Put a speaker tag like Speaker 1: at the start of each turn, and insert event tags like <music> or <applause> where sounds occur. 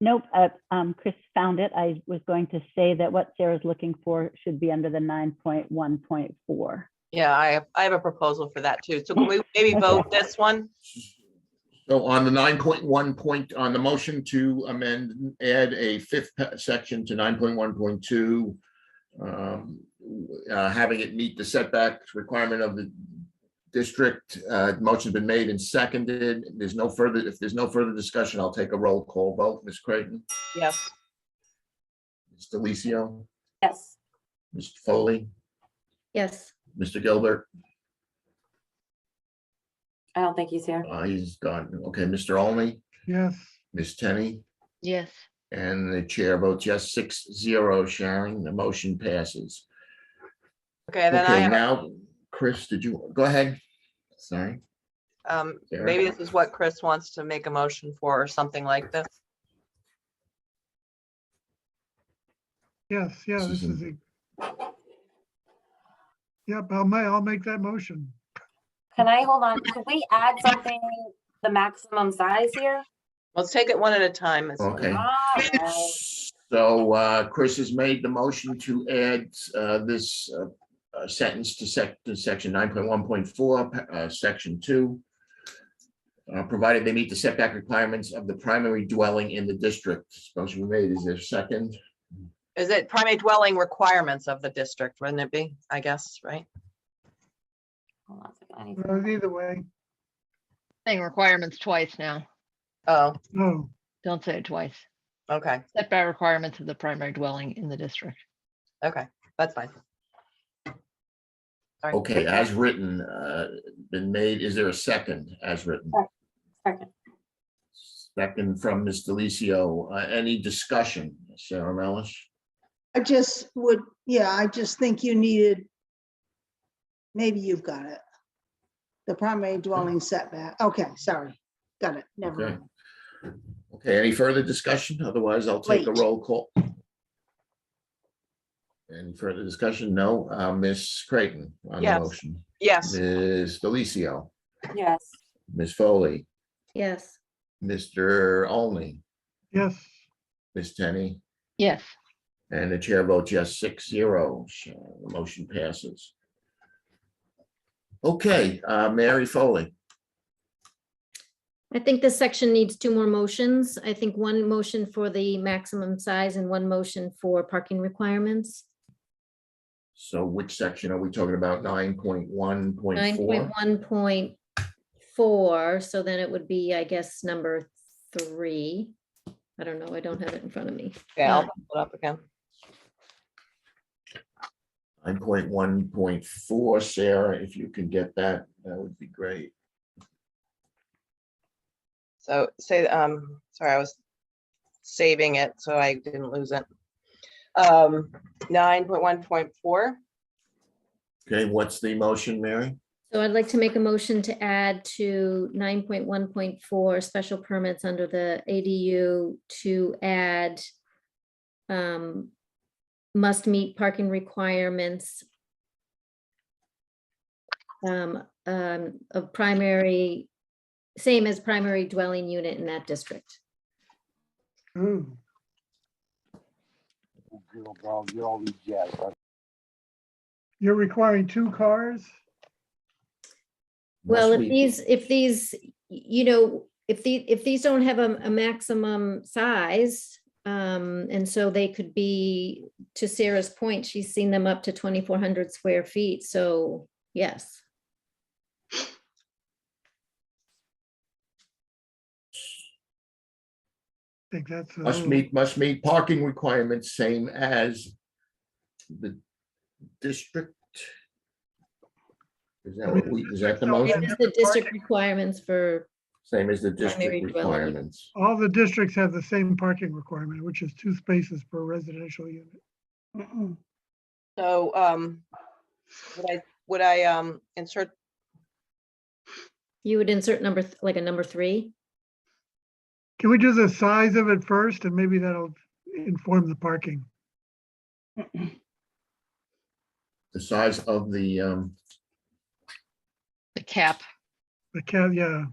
Speaker 1: Nope, uh, um, Chris found it. I was going to say that what Sarah's looking for should be under the nine point one point four.
Speaker 2: Yeah, I have, I have a proposal for that too. So can
Speaker 3: <laughs>
Speaker 2: we maybe vote this one?
Speaker 3: So on the nine point one point, on the motion to amend, add a fifth pa- section to nine point one point two. um, uh, Having it meet the setbacks requirement of the district, uh, motion's been made and seconded. There's no further, if there's no further discussion, I'll take a roll call vote. Ms. Creighton,
Speaker 2: Yes.
Speaker 3: Ms. Delicio,
Speaker 4: Yes.
Speaker 3: Ms. Foley,
Speaker 5: Yes,
Speaker 3: Mr. Gilbert,
Speaker 4: I don't think he's here.
Speaker 3: uh, he's gone. Okay, Mr. Olney,
Speaker 6: yes,
Speaker 3: Ms. Tenney,
Speaker 5: yes,
Speaker 3: and the chair votes yes, six zero, Sharon. The motion passes.
Speaker 2: Okay, then I
Speaker 3: Okay,
Speaker 2: have a-
Speaker 3: now, Chris, did you, go ahead. Sorry.
Speaker 2: Um,
Speaker 3: Sarah?
Speaker 2: maybe this is what Chris wants to make a motion for or something like this.
Speaker 6: yes, yeah, this is.
Speaker 3: Susan.
Speaker 6: the- Yep, I'll ma, I'll make that motion.
Speaker 4: Can I hold on? Can we add something, the maximum size here?
Speaker 2: Let's take it one at a time. It's-
Speaker 3: Okay.
Speaker 4: Alright.
Speaker 3: So uh, Chris has made the motion to add uh, this uh, uh, sentence to sec, to section nine point one point four, section two. uh, Provided they meet the setback requirements of the primary dwelling in the district. Motion we made, is there a second?
Speaker 2: Is it primary dwelling requirements of the district, wouldn't it be? I guess, right?
Speaker 4: Hold on a second, I need
Speaker 6: Uh, Either way,
Speaker 5: saying requirements twice now.
Speaker 2: Oh,
Speaker 6: no,
Speaker 5: Don't say it twice.
Speaker 2: okay,
Speaker 5: Setback requirements of the primary dwelling in the district.
Speaker 2: okay, that's fine. Sorry.
Speaker 3: Okay, as written, uh, been made, is there a second as written?
Speaker 4: a second.
Speaker 3: Second from Ms. Delicio, Uh, any discussion, Sarah Melish?
Speaker 7: I just would, yeah, I just think you needed, maybe you've got it. The primary dwelling setback. Okay, sorry. Got it. Never
Speaker 3: Okay.
Speaker 7: mind.
Speaker 3: Okay, any further discussion? Otherwise, I'll take a
Speaker 7: Wait.
Speaker 3: roll call. Any further discussion? No. Uh, Ms. Creighton on the
Speaker 2: Yes.
Speaker 3: motion.
Speaker 2: Yes,
Speaker 3: Ms. Delicio,
Speaker 4: Yes,
Speaker 3: Ms. Foley,
Speaker 5: Yes.
Speaker 3: Mr. Olney,
Speaker 6: yes,
Speaker 3: Ms. Tenney,
Speaker 5: Yes,
Speaker 3: and the chair votes yes, six zero. So The motion passes. Okay, uh, Mary Foley.
Speaker 5: I think this section needs two more motions. I think one motion for the maximum size and one motion for parking requirements.
Speaker 3: So which section are we talking about? Nine point one point
Speaker 5: Nine
Speaker 3: four?
Speaker 5: point one point four, so then it would be, I guess, number three. I don't know, I don't have it in front of me.
Speaker 2: yeah, I'll pull it up again.
Speaker 3: Nine point one point four, Sarah, if you can get that, that would be great.
Speaker 2: So say, um, sorry, I was saving it, so I didn't lose it. Um, nine point one point four,
Speaker 3: Okay, what's the motion, Mary?
Speaker 5: So I'd like to make a motion to add to nine point one point four special permits under the ADU to add um, must meet parking requirements um, um, of primary, same as primary dwelling unit in that district.
Speaker 6: Ooh, you're requiring two cars?
Speaker 5: Well,
Speaker 3: Must
Speaker 5: if
Speaker 3: we-
Speaker 5: these, if these, y- you know, if the, if these don't have a, a maximum size, um, and so they could be, to Sarah's point, she's seen them up to twenty-four hundred square feet, so yes.
Speaker 6: I think that's. uh, a
Speaker 3: Must
Speaker 6: little-
Speaker 3: meet, must meet parking requirements, same as the district. Is that what we, is that the
Speaker 6: No, we
Speaker 5: This
Speaker 6: Yeah,
Speaker 3: motion?
Speaker 5: is
Speaker 6: have-
Speaker 5: the district requirements for,
Speaker 3: Same as the
Speaker 5: Primary
Speaker 3: district
Speaker 5: dwelling.
Speaker 3: requirements.
Speaker 6: All the districts have the same parking requirement, which is two spaces per residential unit.
Speaker 7: Mm-mm.
Speaker 2: so, um, would I, would I, um, insert,
Speaker 5: you would insert number, th- like a number three?
Speaker 6: Can we do the size of it first and maybe that'll inform the parking?
Speaker 3: The size of the, um,
Speaker 8: The cap,
Speaker 6: The cat, yeah,